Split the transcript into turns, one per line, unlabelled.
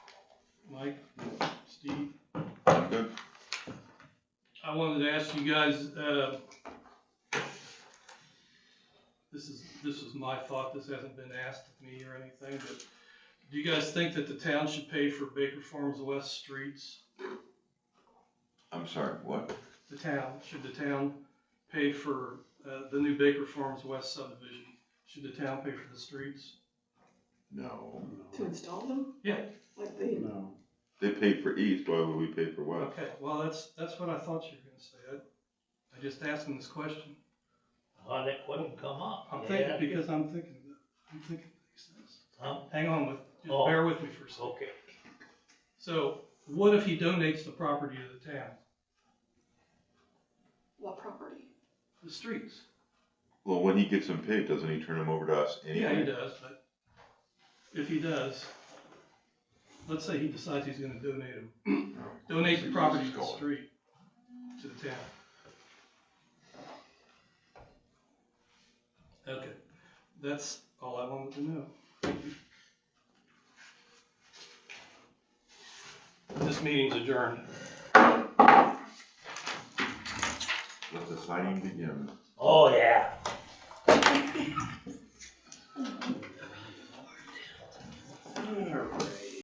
Mike, Steve.
I'm good.
I wanted to ask you guys, uh, this is, this is my thought, this hasn't been asked of me or anything, but do you guys think that the town should pay for Baker Farms West streets?
I'm sorry, what?
The town, should the town pay for, uh, the new Baker Farms West subdivision? Should the town pay for the streets?
No.
To install them?
Yeah.
Like they,
No.
They paid for east, why would we pay for west?
Okay, well, that's, that's what I thought you were gonna say. I, I just asked him this question.
Well, that wouldn't come up.
I'm thinking,
Yeah.
because I'm thinking, of that. I'm thinking of these things.
Huh?
Hang on with, just
Oh.
bear with me for a second.
Okay,
So what if he donates the property to the town,
what property?
the streets?
Well, when he gets them paid, doesn't he turn them over to us
Yeah, he
anyway?
does, but if he does, let's say he decides he's gonna donate them, donate the property to the street, to the town. Okay, that's all I wanted to know. This meeting's adjourned.
Let the signing begin.
oh, yeah.